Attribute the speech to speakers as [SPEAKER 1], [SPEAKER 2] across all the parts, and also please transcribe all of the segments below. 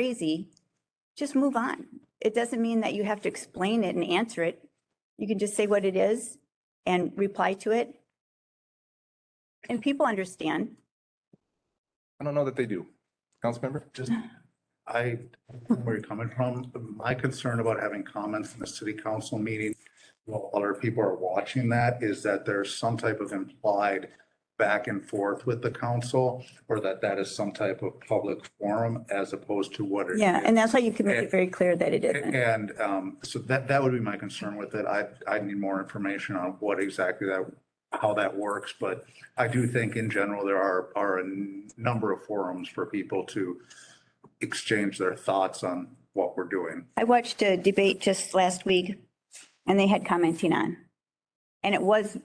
[SPEAKER 1] crazy, just move on. It doesn't mean that you have to explain it and answer it. You can just say what it is and reply to it. And people understand.
[SPEAKER 2] I don't know that they do. Councilmember?
[SPEAKER 3] just, I, where you're coming from, my concern about having comments in the city council meeting while other people are watching that is that there's some type of implied back and forth with the council or that that is some type of public forum as opposed to what it is.
[SPEAKER 1] Yeah, and that's why you can make it very clear that it isn't.
[SPEAKER 3] And um, so that, that would be my concern with it. I, I need more information on what exactly that, how that works. But I do think in general, there are, are a n- number of forums for people to exchange their thoughts on what we're doing.
[SPEAKER 1] I watched a debate just last week and they had commenting on. And it was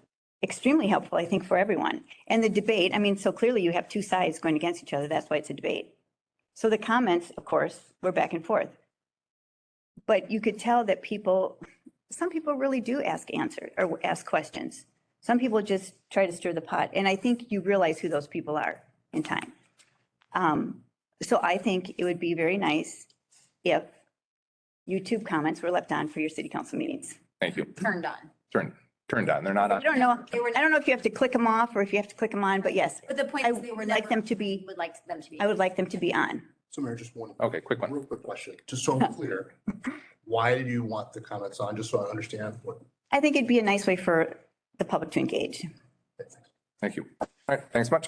[SPEAKER 1] extremely helpful, I think, for everyone. And the debate, I mean, so clearly you have two sides going against each other. That's why it's a debate. So the comments, of course, were back and forth. But you could tell that people, some people really do ask answers or ask questions. Some people just try to stir the pot. And I think you realize who those people are in time. Um, So I think it would be very nice if YouTube comments were left on for your city council meetings.
[SPEAKER 2] Thank you.
[SPEAKER 4] turned on.
[SPEAKER 2] Turned, turned on. They're not
[SPEAKER 1] I
[SPEAKER 2] on.
[SPEAKER 1] don't know, I don't know if you have to click them off or if you have to click them on, but yes,
[SPEAKER 4] But the point
[SPEAKER 1] I
[SPEAKER 4] is they were
[SPEAKER 1] would
[SPEAKER 4] never.
[SPEAKER 1] like them to be,
[SPEAKER 4] Would like them to be.
[SPEAKER 1] I would like them to be on.
[SPEAKER 5] So Mayor, just one,
[SPEAKER 2] Okay, quick one.
[SPEAKER 5] real quick question, just so I'm clear. Why do you want the comments on, just so I understand what?
[SPEAKER 1] I think it'd be a nice way for the public to engage.
[SPEAKER 2] Thank you. All right, thanks much.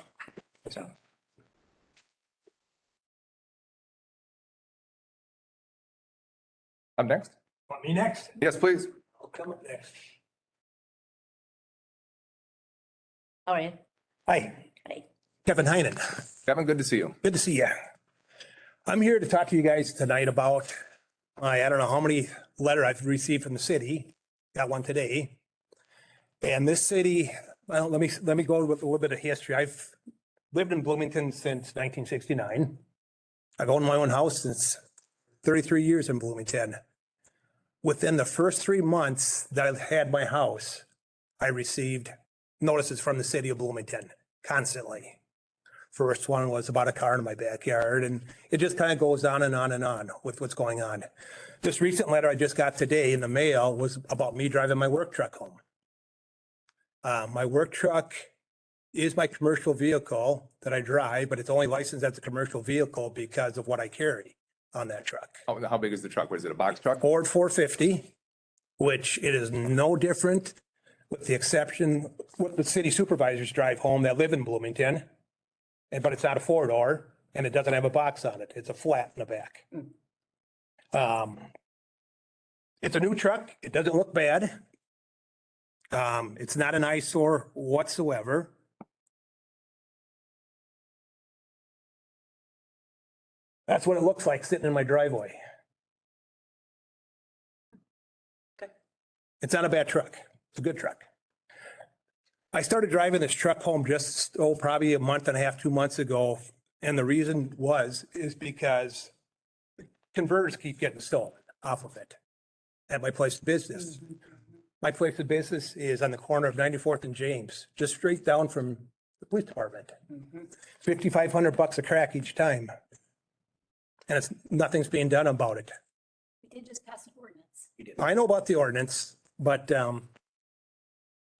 [SPEAKER 2] Up next?
[SPEAKER 6] Want me next?
[SPEAKER 2] Yes, please.
[SPEAKER 6] I'll come up next.
[SPEAKER 4] All right.
[SPEAKER 6] Hi.
[SPEAKER 4] Hi.
[SPEAKER 6] Kevin Heinen.
[SPEAKER 2] Kevin, good to see you.
[SPEAKER 6] Good to see you. I'm here to talk to you guys tonight about, I I don't know how many letter I've received from the city. Got one today. And this city, well, let me, let me go with a little bit of history. I've lived in Bloomington since 1969. I've owned my own house since 33 years in Bloomington. Within the first three months that I had my house, I received notices from the city of Bloomington constantly. First one was about a car in my backyard and it just kind of goes on and on and on with what's going on. This recent letter I just got today in the mail was about me driving my work truck home. Uh, my work truck is my commercial vehicle that I drive, but it's only licensed as a commercial vehicle because of what I carry on that truck.
[SPEAKER 2] How, Oh, how big is the truck? Was it a box truck?
[SPEAKER 6] Ford four fifty, which it is no different with the exception, what the city supervisors drive home that live in Bloomington. And, but it's not a four door and it doesn't have a box on it. It's a flat in the back. Um, it's a new truck. It doesn't look bad. Um, it's not an eyesore whatsoever. That's what it looks like sitting in my driveway. It's not a bad truck. It's a good truck. I started driving this truck home just, oh, probably a month and a half, two months ago. And the reason was, is because converters keep getting stolen off of it at my place of business. My place of business is on the corner of 94th and James, just straight down from the police department. 5,500 bucks a crack each time. And it's, nothing's being done about it.
[SPEAKER 4] We did just pass an ordinance.
[SPEAKER 6] I know about the ordinance, but um,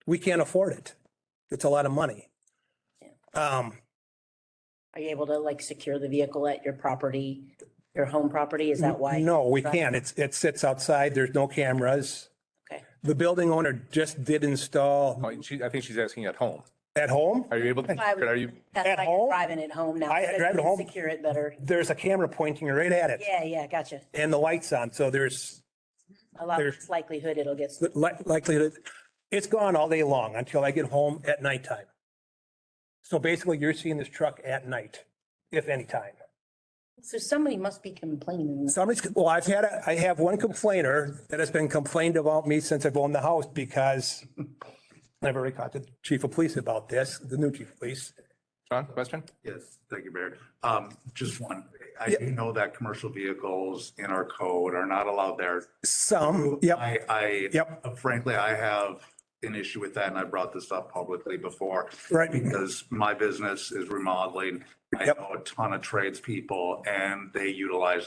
[SPEAKER 6] we can't afford it. It's a lot of money. Um,
[SPEAKER 7] Are you able to like secure the vehicle at your property, your home property? Is that why?
[SPEAKER 6] no, we can't. It's, it sits outside. There's no cameras.
[SPEAKER 7] Okay.
[SPEAKER 6] The building owner just did install
[SPEAKER 2] Oh, she, I think she's asking at home.
[SPEAKER 6] at home.
[SPEAKER 2] Are you able to,
[SPEAKER 7] I would-
[SPEAKER 2] are you,
[SPEAKER 7] That's
[SPEAKER 6] At
[SPEAKER 7] why
[SPEAKER 6] home?
[SPEAKER 7] you're driving it home now.
[SPEAKER 6] I
[SPEAKER 7] so that you
[SPEAKER 6] drive it
[SPEAKER 7] can
[SPEAKER 6] home.
[SPEAKER 7] Secure it better.
[SPEAKER 6] There's a camera pointing right at it
[SPEAKER 7] Yeah, yeah, gotcha.
[SPEAKER 6] and the lights on. So there's
[SPEAKER 7] A lot
[SPEAKER 6] There's-
[SPEAKER 7] less likelihood it'll get.
[SPEAKER 6] li- likelihood, it's gone all day long until I get home at nighttime. So basically you're seeing this truck at night, if any time.
[SPEAKER 7] So somebody must be complaining.
[SPEAKER 6] Somebody's, well, I've had, a- I have one complainer that has been complained about me since I've owned the house because I've already caught the chief of police about this, the new chief of police.
[SPEAKER 2] John, question?
[SPEAKER 3] Yes, thank you, Mayor. Um, just one, I do know that commercial vehicles in our code are not allowed there.
[SPEAKER 6] Some, yep,
[SPEAKER 3] I, I. uh,
[SPEAKER 6] Yep.
[SPEAKER 3] Frankly, I have an issue with that and I brought this up publicly before.
[SPEAKER 6] Right.
[SPEAKER 3] Because my business is remodeling. I
[SPEAKER 6] Yep.
[SPEAKER 3] know a ton of tradespeople and they utilize